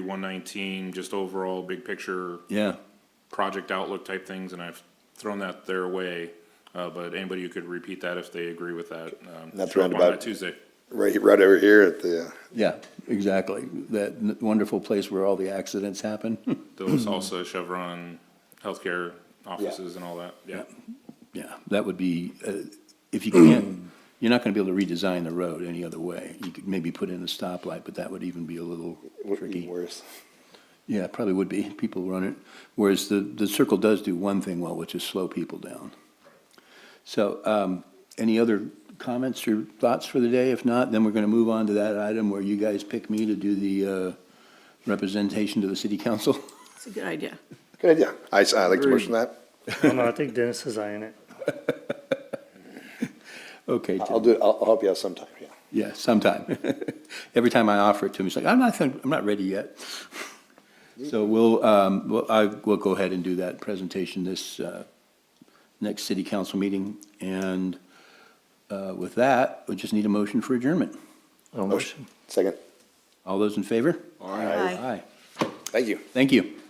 one nineteen, just overall big picture Yeah, project outlook type things, and I've thrown that their way. Uh, but anybody who could repeat that if they agree with that, um, That's show up on roundabout. that Tuesday. Right, right over here at the, uh, yeah, exactly. That n- wonderful place where all the accidents happen. The La Salsa, Chevron, healthcare offices and all that, yeah. Yeah, that would be, uh, if you can't, you're not gonna be able to redesign the road any other way. You could maybe put in a stoplight, but that would even be a little would be tricky. worse. Yeah, it probably would be. People run it. Whereas the, the circle does do one thing well, which is slow people down. So, um, any other comments or thoughts for the day? If not, then we're gonna move on to that item where you guys pick me to do the, uh, representation to the city council. It's a good idea. Good idea. I, s- I like to motion that. Oh, no, I think Dennis is eyeing it. Okay, I'll do, it. I'll, I'll help you out sometime, yeah. Yeah, sometime. Every time I offer it to him, he's like, I'm not, I'm not ready yet. So we'll, um, we'll, I, we'll go ahead and do that presentation this, uh, next city council meeting. And, uh, with that, we just need a motion for adjournment. Oh, Motion. Second. All those in favor? Aye. Aye. Thank you. Thank you.